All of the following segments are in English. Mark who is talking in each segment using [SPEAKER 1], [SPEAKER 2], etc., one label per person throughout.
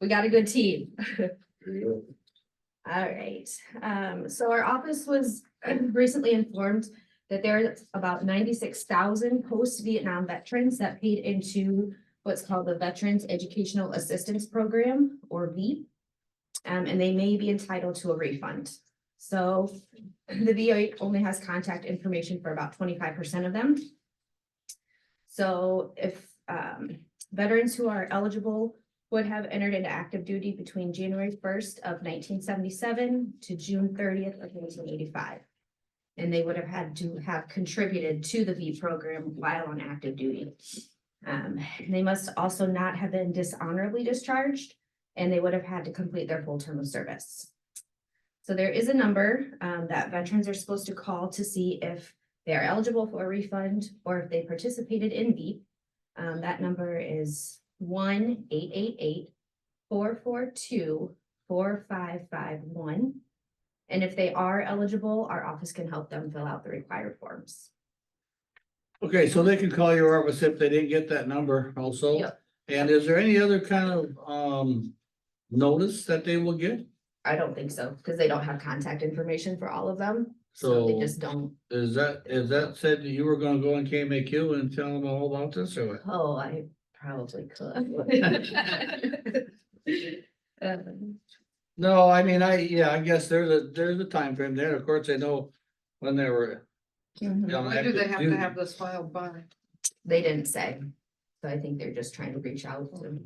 [SPEAKER 1] We got a good team. All right, um, so our office was recently informed that there are about ninety-six thousand post-Vietnam veterans that paid into what's called the Veterans Educational Assistance Program, or VEAP. Um, and they may be entitled to a refund. So the VA only has contact information for about twenty-five percent of them. So if, um, veterans who are eligible would have entered into active duty between January first of nineteen seventy-seven to June thirtieth of nineteen eighty-five. And they would have had to have contributed to the V program while on active duty. Um, they must also not have been dishonorably discharged, and they would have had to complete their full term of service. So there is a number, um, that veterans are supposed to call to see if they are eligible for a refund or if they participated in V. Um, that
[SPEAKER 2] Mm-hmm.
[SPEAKER 1] number is one eight eight eight four four two four five five one. And if they are eligible, our office can help them fill out the required forms.
[SPEAKER 3] Okay, so they could call your office if they didn't get that number also.
[SPEAKER 1] Yep.
[SPEAKER 3] And is there any other kind of, um, notice that they will get?
[SPEAKER 1] I don't think so, because they don't have contact information for all of them, so they
[SPEAKER 3] So-
[SPEAKER 1] just don't.
[SPEAKER 3] Is that, is that said that you were gonna go on KMAQ and tell them all about this or what?
[SPEAKER 1] Oh, I probably could. Um,
[SPEAKER 3] No, I mean, I, yeah, I guess there's a, there's a time frame there. Of course, I know when they were.
[SPEAKER 1] mhm.
[SPEAKER 3] on
[SPEAKER 4] When do they
[SPEAKER 3] active
[SPEAKER 4] have to
[SPEAKER 3] duty.
[SPEAKER 4] have this filed by?
[SPEAKER 1] They didn't say, so I think they're just trying to reach out to.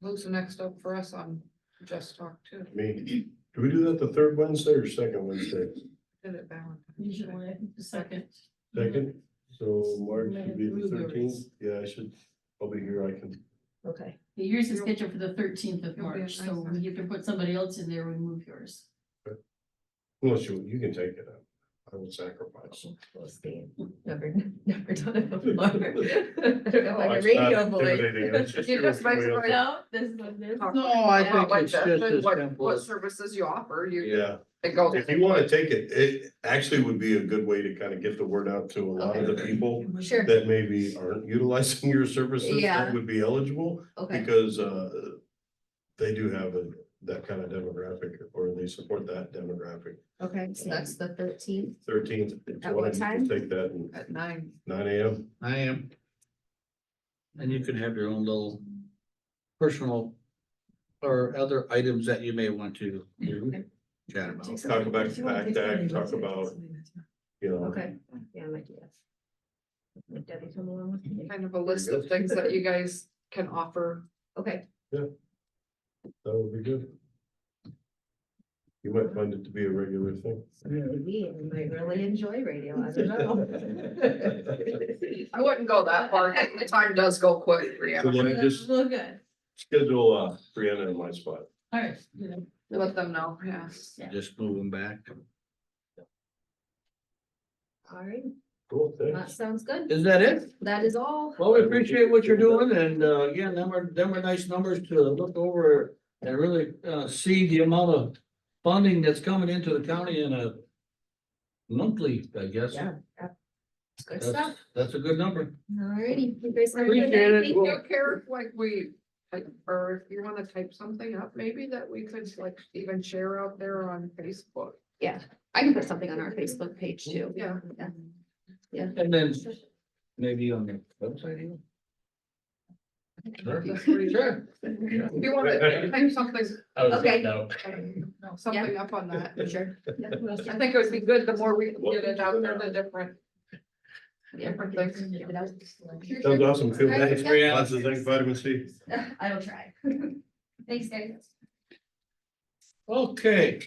[SPEAKER 4] Who's the next up for us on Just Talk Two?
[SPEAKER 2] Me, do we do that the third Wednesday or second Wednesday?
[SPEAKER 4] Did it Valentine's Day?
[SPEAKER 5] Usually, the second.
[SPEAKER 2] Second, so March
[SPEAKER 5] Maybe
[SPEAKER 2] would be the
[SPEAKER 5] move yours.
[SPEAKER 2] thirteenth, yeah, I should, I'll be here, I can,
[SPEAKER 1] Okay.
[SPEAKER 5] The Yours is scheduled for the thirteenth of
[SPEAKER 4] You'll be
[SPEAKER 5] March,
[SPEAKER 4] on
[SPEAKER 5] so
[SPEAKER 4] my
[SPEAKER 5] we have to put somebody else in there, we move yours.
[SPEAKER 2] unless you, you can take it up, I will sacrifice.
[SPEAKER 1] We'll see. Never, never done it before. I don't know, Oh, like a
[SPEAKER 2] It's
[SPEAKER 1] radio
[SPEAKER 2] not
[SPEAKER 1] voice.
[SPEAKER 2] intimidating, it's just
[SPEAKER 4] You
[SPEAKER 2] doing
[SPEAKER 4] just makes it right.
[SPEAKER 2] somebody else-
[SPEAKER 5] No, this is what it is.
[SPEAKER 3] No, I
[SPEAKER 4] Not
[SPEAKER 3] think
[SPEAKER 4] like
[SPEAKER 3] it's
[SPEAKER 4] that,
[SPEAKER 3] just
[SPEAKER 4] then
[SPEAKER 3] as
[SPEAKER 4] what-
[SPEAKER 3] simple
[SPEAKER 4] What
[SPEAKER 3] as-
[SPEAKER 4] services you offer, you,
[SPEAKER 2] Yeah,
[SPEAKER 4] it goes.
[SPEAKER 2] if you wanna take it, it actually would be a good way to kind of get the word out to a lot of the people
[SPEAKER 1] Sure,
[SPEAKER 2] that maybe aren't utilizing your services,
[SPEAKER 1] Yeah.
[SPEAKER 2] that would be eligible.
[SPEAKER 1] okay,
[SPEAKER 2] Because uh, they do have a- that kind of demographic, or they support that demographic.
[SPEAKER 1] okay, so that's the thirteenth.
[SPEAKER 2] Thirteenth, if
[SPEAKER 1] At
[SPEAKER 2] you want
[SPEAKER 1] what time?
[SPEAKER 2] to take that and
[SPEAKER 4] At nine,
[SPEAKER 2] nine AM,
[SPEAKER 3] I am. And you can have your own little personal or other items that you may want to chat about.
[SPEAKER 2] talk about the PACT Act, talk about, you know.
[SPEAKER 1] Okay, yeah, I might do that. Let Debbie come along with me.
[SPEAKER 4] kind of a list of things that you guys can offer.
[SPEAKER 1] Okay,
[SPEAKER 2] That would be good. You might find it to be a regular thing.
[SPEAKER 1] maybe I might really enjoy radio, I don't know.
[SPEAKER 4] I wouldn't go that far, the time does go quick,
[SPEAKER 2] So
[SPEAKER 4] Brianna,
[SPEAKER 2] then I just
[SPEAKER 5] Well, good,
[SPEAKER 2] schedule uh, Brianna in my spot.
[SPEAKER 5] all right, you know,
[SPEAKER 4] let them know, yeah.
[SPEAKER 3] Just move them back.
[SPEAKER 1] All right,
[SPEAKER 2] Cool,
[SPEAKER 1] that
[SPEAKER 2] thanks.
[SPEAKER 1] sounds good.
[SPEAKER 3] Is that it?
[SPEAKER 1] That is all.
[SPEAKER 3] Well, we appreciate what you're doing and uh, again, them are, them are nice numbers to look over and really uh, see the amount of funding that's coming into the county in a monthly, I guess.
[SPEAKER 1] Yeah. It's Good
[SPEAKER 3] That's,
[SPEAKER 1] stuff.
[SPEAKER 3] that's a good number.
[SPEAKER 1] All righty. you guys have a good
[SPEAKER 3] Appreciate
[SPEAKER 1] night.
[SPEAKER 3] it.
[SPEAKER 1] Thank
[SPEAKER 4] Do
[SPEAKER 1] you.
[SPEAKER 4] you care if like we, like, or if you wanna type something up, maybe that we could like even share out there on Facebook?
[SPEAKER 1] I can put something on our Facebook page too.
[SPEAKER 4] Yeah.
[SPEAKER 3] And then maybe on the website. even? Sure.
[SPEAKER 4] That's what you-
[SPEAKER 3] Sure.
[SPEAKER 4] If you wanna type something,
[SPEAKER 1] Okay.
[SPEAKER 4] no, something up on that.
[SPEAKER 1] Sure.
[SPEAKER 4] I think it would be good, the more we can get it out there, the different. Different things.
[SPEAKER 2] Sounds awesome. Feel
[SPEAKER 1] Thanks,
[SPEAKER 2] nice,
[SPEAKER 1] Brianna.
[SPEAKER 2] Brianna. Lots of thanks, vitamin C.
[SPEAKER 1] I will try. Thanks, guys.
[SPEAKER 3] Okay.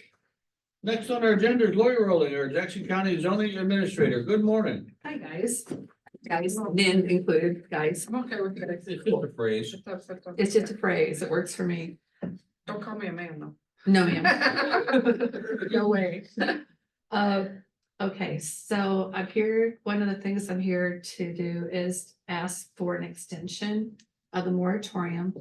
[SPEAKER 3] Next on our agenda is Lori Rolling, our Jackson County zoning administrator. Good morning.
[SPEAKER 6] Hi, guys. Guys, men included, guys.
[SPEAKER 4] I'm okay with that.
[SPEAKER 3] It's just a phrase.
[SPEAKER 4] That's- that's-
[SPEAKER 6] It's just a phrase. It works for me.
[SPEAKER 4] Don't call me a man though.
[SPEAKER 6] No, ma'am. No way. Uh, okay, so I'm here, one of the things I'm here to do is ask for an extension of the moratorium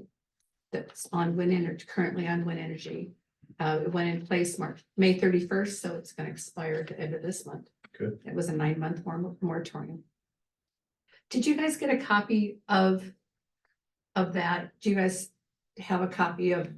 [SPEAKER 6] that's on wind energy, currently on wind energy. Uh, it went in place March, May thirty-first, so it's gonna expire at the end of this month.
[SPEAKER 2] Okay.
[SPEAKER 6] It was a nine-month mor- moratorium. Did you guys get a copy of, of that? Do you guys have a copy of